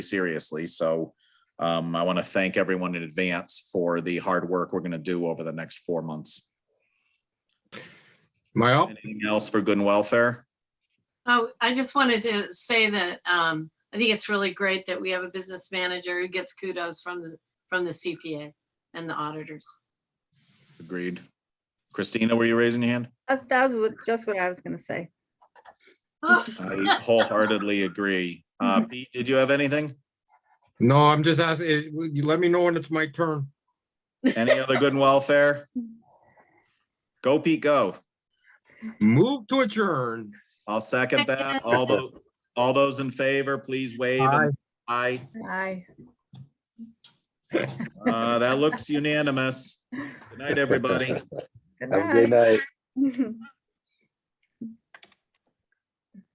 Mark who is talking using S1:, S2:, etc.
S1: seriously. So um, I want to thank everyone in advance for the hard work we're going to do over the next four months.
S2: Mayo,
S1: Anything else for good and welfare?
S3: Oh, I just wanted to say that um, I think it's really great that we have a business manager who gets kudos from the, from the CPA and the auditors.
S1: Agreed. Christina, were you raising your hand?
S4: That's, that was what- just what I was gonna say.
S3: Oh,
S1: I wholeheartedly agree. Uh, Pete, did you have anything?
S2: no, I'm just asking, eh, will you let me know when it's my turn.
S1: Any other good and welfare? Go Pete, go.
S2: Move to adjourn.
S1: I'll second that. All those, all those in favor, please wave. and Aye.
S4: Aye.
S1: Uh, that looks unanimous. Good night, everybody.
S4: Good
S5: Have a great
S4: night.
S5: night.